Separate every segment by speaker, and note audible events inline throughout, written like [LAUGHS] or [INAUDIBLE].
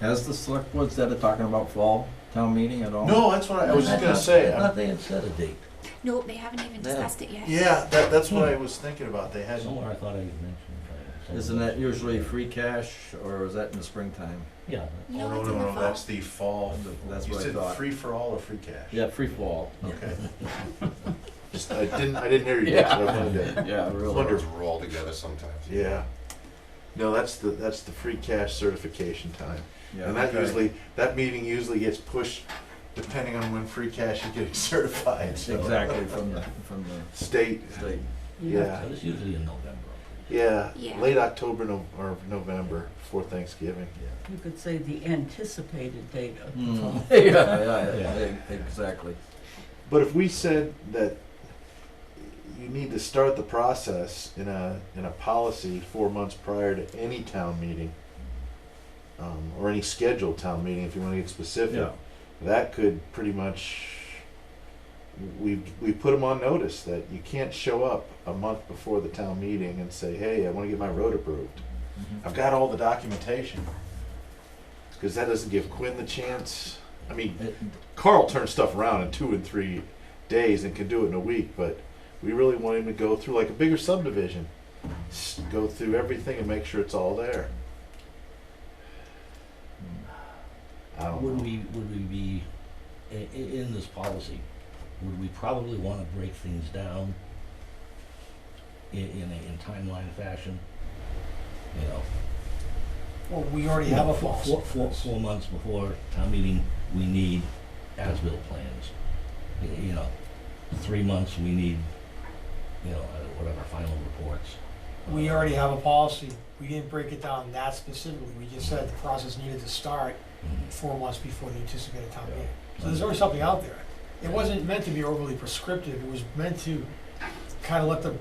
Speaker 1: Has the select board started talking about fall town meeting at all?
Speaker 2: No, that's what I, I was just gonna say.
Speaker 3: I
Speaker 2: I'm-
Speaker 3: thought they had set a date.
Speaker 4: No, they haven't even
Speaker 3: No.
Speaker 4: discussed it yet.
Speaker 2: Yeah, that, that's what I was thinking about. They hadn't.
Speaker 3: Somewhere I thought I had mentioned.
Speaker 1: Isn't that usually free cash, or is that in the springtime?
Speaker 3: Yeah.
Speaker 2: Oh,
Speaker 4: No,
Speaker 2: no,
Speaker 4: it's in
Speaker 2: no,
Speaker 4: the
Speaker 2: no,
Speaker 4: fall.
Speaker 2: that's the fall.
Speaker 1: That's
Speaker 2: You
Speaker 1: what I
Speaker 2: said
Speaker 1: thought.
Speaker 2: free for all or free cash?
Speaker 1: Yeah, free fall.
Speaker 2: [LAUGHS] Okay. Just, I didn't, I didn't hear you.
Speaker 1: Yeah.
Speaker 2: so I wanted to-
Speaker 1: Yeah,
Speaker 2: Wonder-
Speaker 1: really.
Speaker 5: Numbers roll together sometimes.
Speaker 2: Yeah. No, that's the, that's the free cash certification time.
Speaker 1: Yeah,
Speaker 2: And that
Speaker 1: okay.
Speaker 2: usually, that meeting usually gets pushed depending on when free cash is getting [LAUGHS] certified. so-
Speaker 1: Exactly, from the, from the
Speaker 2: State,
Speaker 1: state.
Speaker 2: yeah,
Speaker 3: It's usually in November.
Speaker 2: yeah,
Speaker 4: Yeah.
Speaker 2: late October, no, or November, before Thanksgiving.
Speaker 6: You could say the anticipated date of the
Speaker 1: Hmm. [LAUGHS]
Speaker 6: fall.
Speaker 1: Yeah, yeah,
Speaker 3: Yeah.
Speaker 1: yeah, e- exactly.
Speaker 2: But if we said that you need to start the process in a, in a policy four months prior to any town meeting, um, or any scheduled town meeting, if you wanna get specific,
Speaker 1: Yeah.
Speaker 2: that could pretty much, we, we put them on notice that you can't show up a month before the town meeting and say, hey, I wanna get my road approved.
Speaker 1: Mhm.
Speaker 2: I've got all the documentation. Cause that doesn't give Quinn the chance, I mean,
Speaker 1: It-
Speaker 2: Carl turns stuff around in two and three days and can do it in a week, but we really want him to go through like a bigger subdivision. S- Go through everything and make sure it's all there. I don't
Speaker 3: Would
Speaker 2: know.
Speaker 3: we, would we be, i- i- in this policy, would we probably wanna break things down i- in a, in timeline fashion? You know?
Speaker 7: Well, we already have a
Speaker 3: four-
Speaker 7: policy.
Speaker 3: Four, four, four months before town meeting, we need as-built plans. Y- You know, three months, we need, you know, uh, whatever, final reports.
Speaker 7: We already have a policy. We didn't break it down that specifically. We just said the process needed to start
Speaker 3: Mhm.
Speaker 7: four months before the anticipated town
Speaker 3: Yeah.
Speaker 7: meeting. So there's already something out there. It wasn't meant to be overly prescriptive. It was meant to kind of let the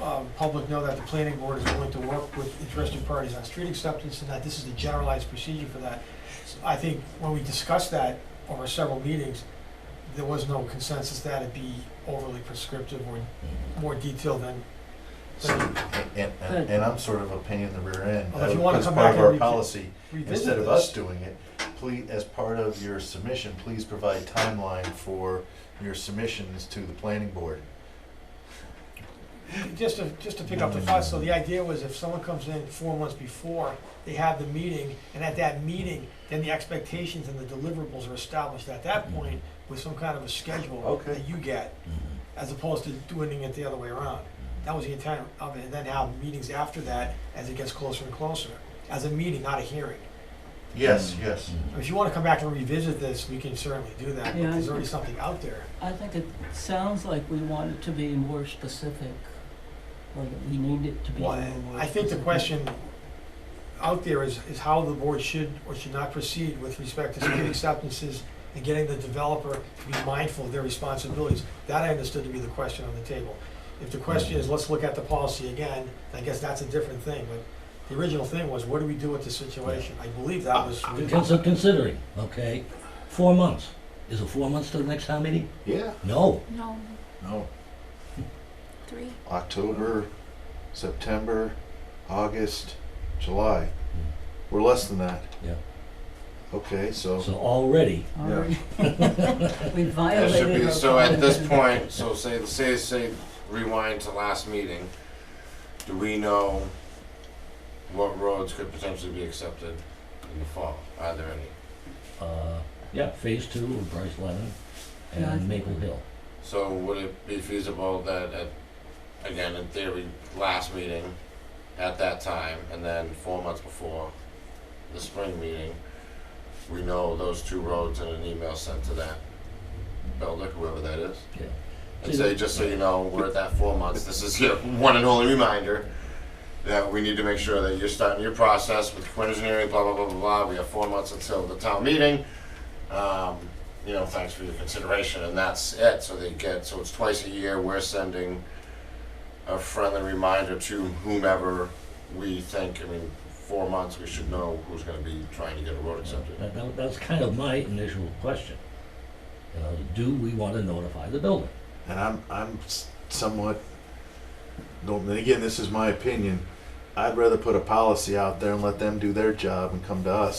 Speaker 7: um, public know that the planning board is willing to work with interested parties on street acceptance and that this is the generalized procedure for that. So I think when we discussed that over several meetings, there was no consensus that it'd be overly prescriptive or
Speaker 3: Mhm.
Speaker 7: more detailed than
Speaker 2: So, and, and, and I'm sort of a pain in the rear end.
Speaker 7: Well, Oh, if you wanna
Speaker 2: As
Speaker 7: come
Speaker 2: part
Speaker 7: back
Speaker 2: of
Speaker 7: and
Speaker 2: our
Speaker 7: revi-
Speaker 2: policy,
Speaker 7: revisit
Speaker 2: instead of
Speaker 7: this.
Speaker 2: us doing it, please, as part of your submission, please provide timeline for your submissions to the planning board.
Speaker 7: Just to, just to pick up the thought, so the idea was if someone comes in four months before, they have the meeting, and at that meeting, then the expectations and the deliverables are established at that point with some kind of a schedule
Speaker 2: Okay.
Speaker 7: that you get,
Speaker 3: Mhm.
Speaker 7: as opposed to doing it the other way around.
Speaker 3: Mm-hmm.
Speaker 7: That was the intent of it, and then have meetings after that as it gets closer and closer, as a meeting, not a hearing.
Speaker 2: Yes, yes.
Speaker 3: Mhm.
Speaker 7: If you wanna come back and revisit this, we can certainly do that, but
Speaker 6: Yeah.
Speaker 7: there's already something out there.
Speaker 6: I think it sounds like we want it to be more specific, or that we need it to be more
Speaker 7: Well,
Speaker 6: specific.
Speaker 7: I think the question out there is, is how the board should or should not proceed with respect to street acceptances and getting the developer to be mindful of their responsibilities. That I understood to be the question on the table. If the question is, let's look at the policy again, I guess that's a different thing, but the original thing was, what do we do with the situation? I believe that was.
Speaker 3: Cons- Considering, okay, four months, is it four months to the next town meeting?
Speaker 2: Yeah.
Speaker 3: No,
Speaker 4: No,
Speaker 2: No,
Speaker 4: three.
Speaker 2: October, September, August, July. We're less than that.
Speaker 3: Yeah.
Speaker 2: Okay, so,
Speaker 3: so already,
Speaker 6: Already- [LAUGHS] We
Speaker 5: That should
Speaker 6: violated
Speaker 5: be,
Speaker 6: our.
Speaker 5: so at this
Speaker 6: policy.
Speaker 5: point, so say, say, say, rewind to last meeting, do we know what roads could potentially be accepted in the fall? Are there any?
Speaker 3: uh, yeah, phase two of Bryce Lemon
Speaker 6: Yeah, I
Speaker 3: and
Speaker 6: think-
Speaker 3: Maple Hill.
Speaker 5: So would it be feasible that at, again, in theory, last meeting, at that time, and then four months before the spring meeting, we know those two roads and an email sent to that builder, whoever that is?
Speaker 3: Yeah.
Speaker 5: And say, just so you know, we're at that four months, this is your one and only reminder that we need to make sure that you're starting your process with Quinn Engineering, blah, blah, blah, blah, blah, we have four months until the town meeting. Um, you know, thanks for your consideration, and that's it, so they get, so it's twice a year, we're sending a friendly reminder to whomever we think, I mean, four months, we should know who's gonna be trying to get a road accepted.
Speaker 3: That, that, that's kind of my initial question. You know, do we want to notify the builder?
Speaker 2: and I'm, I'm s- somewhat, don't, and again, this is my opinion. I'd rather put a policy out there and let them do their job and come to us